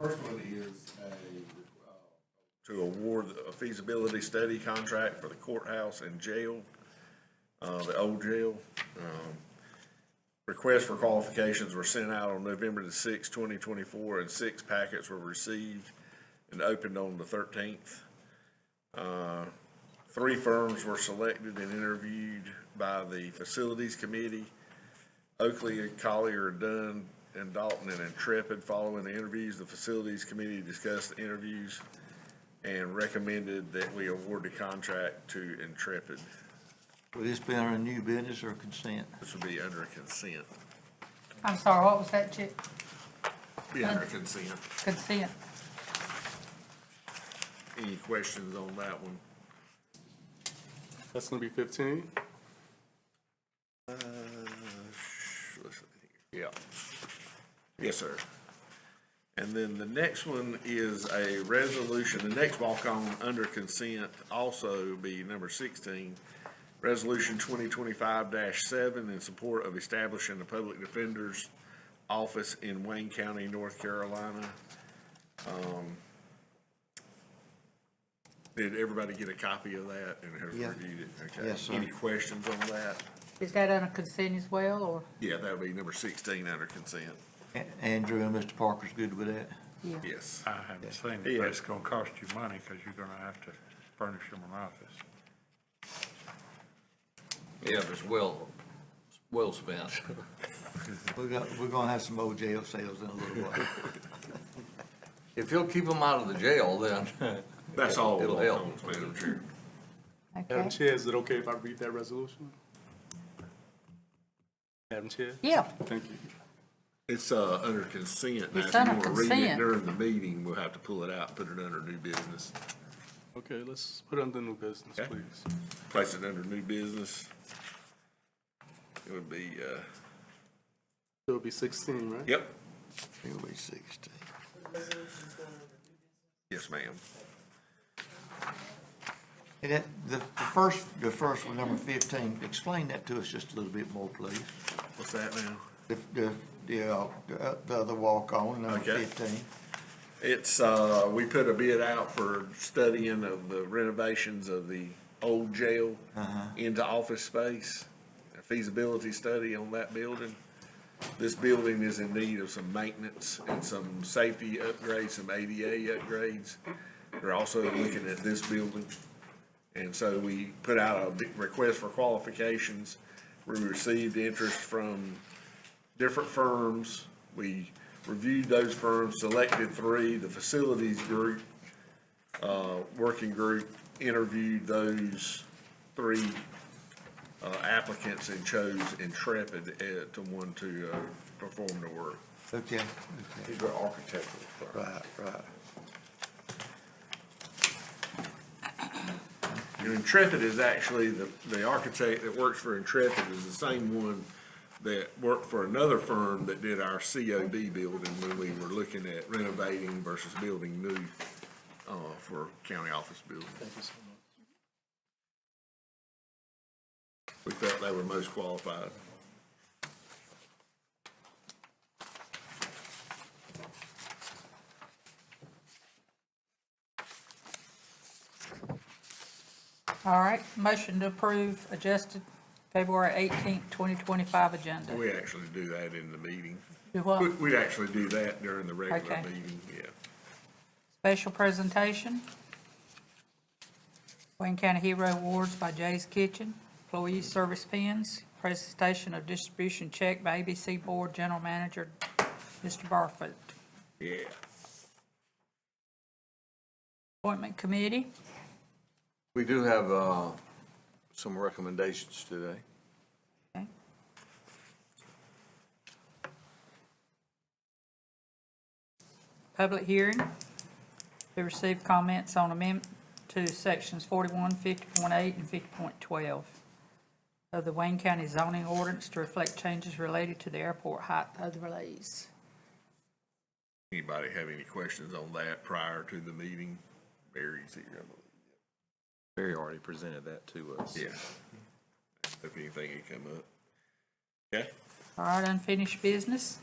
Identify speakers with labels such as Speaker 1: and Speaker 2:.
Speaker 1: First one is a, uh, to award a feasibility study contract for the courthouse and jail, uh, the old jail. Um, Requests for qualifications were sent out on November the sixth, twenty twenty-four, and six packets were received and opened on the thirteenth. Uh, Three firms were selected and interviewed by the facilities committee. Oakley, Collier, Dunn, and Dalton and Intrepid. Following the interviews, the facilities committee discussed the interviews and recommended that we award the contract to Intrepid.
Speaker 2: Will this be under new business or consent?
Speaker 1: This would be under consent,
Speaker 3: I'm sorry, what was that, Chip?
Speaker 1: be under consent.
Speaker 3: Consent?
Speaker 1: Any questions on that one?
Speaker 4: That's gonna be fifteen.
Speaker 1: Uh, sh- let's see here. Yeah. Yes, sir. And then the next one is a resolution, the next walk-on under consent also be number sixteen. Resolution twenty twenty-five seven in support of establishing the public defender's office in Wayne County, North Carolina. Um, Did everybody get a copy of that and has
Speaker 2: Yeah.
Speaker 1: reviewed it? Okay.
Speaker 2: Yes, sir.
Speaker 1: Any questions on that?
Speaker 3: Is that under consent as well, or?
Speaker 1: Yeah, that would be number sixteen under consent,
Speaker 2: A- Andrew and Mr. Parker's good with that?
Speaker 1: yes.
Speaker 5: I haven't seen it,
Speaker 1: Yeah.
Speaker 5: but it's gonna cost you money, cause you're gonna have to furnish them an office.
Speaker 6: Yeah, but it's well, it's well spent.
Speaker 2: We're gonna, we're gonna have some old jail cells in a little while.
Speaker 6: If he'll keep them out of the jail, then.
Speaker 1: That's all
Speaker 6: It'll help.
Speaker 1: walk-ons, Madam Chair.
Speaker 3: Okay.
Speaker 4: Madam Chair, is it okay if I read that resolution? Madam Chair?
Speaker 3: Yeah,
Speaker 4: Thank you.
Speaker 1: It's, uh, under consent. Now,
Speaker 3: It's
Speaker 1: if you
Speaker 3: under
Speaker 1: wanna read it
Speaker 3: consent.
Speaker 1: During the meeting, we'll have to pull it out, and put it under new business,
Speaker 4: Okay, let's put under new business,
Speaker 1: Okay.
Speaker 4: please.
Speaker 1: place it under new business. It would be, uh,
Speaker 4: It'll be sixteen, right?
Speaker 1: yep,
Speaker 2: It'll be sixteen.
Speaker 1: yes, ma'am.
Speaker 2: And that, the, the first, the first one, number fifteen, explain that to us just a little bit more, please.
Speaker 1: What's that now?
Speaker 2: The, the, the, uh, the uh, the other walk-on, number
Speaker 1: Okay.
Speaker 2: fifteen.
Speaker 1: It's, uh, we put a bid out for studying of the renovations of the old jail into office space, a feasibility study on that building. This building is in need of some maintenance and some safety upgrades, some ADA upgrades. We're also looking at this building. And so we put out a big request for qualifications. We received interest from different firms. We reviewed those firms, selected three, the facilities group, uh, working group interviewed those three uh, applicants and chose Intrepid uh, to one to, uh, perform the work.
Speaker 2: Okay, okay,
Speaker 1: These are architectural firms.
Speaker 2: right, right.
Speaker 1: Your Intrepid is actually, the, the architect that works for Intrepid is the same one that worked for another firm that did our COD building when we were looking at renovating versus building new, uh, for county office building.
Speaker 4: Thank you so much.
Speaker 1: We felt they were most qualified.
Speaker 3: all right. Motion to approve adjusted February eighteenth, twenty twenty-five agenda.
Speaker 1: We actually do that in the meeting.
Speaker 3: Do what?
Speaker 1: We- We'd actually do that during the regular
Speaker 3: Okay.
Speaker 1: meeting, yeah.
Speaker 3: Special presentation. Wayne County Hero Awards by Jay's Kitchen, employee service pins, presentation of distribution check by ABC Board General Manager, Mr. Barfoot.
Speaker 1: Yeah.
Speaker 3: Appointment committee,
Speaker 6: We do have, uh, some recommendations today.
Speaker 3: okay. Public hearing to receive comments on amendment to sections 41, 50.8, and 50.12 of the Wayne County zoning ordinance to reflect changes related to the airport height overlays.
Speaker 1: Anybody have any questions on that prior to the meeting? Barry's here, I
Speaker 7: Barry already presented that to us.
Speaker 1: believe. Yeah. If anything had come up. Okay.
Speaker 3: All right, unfinished business.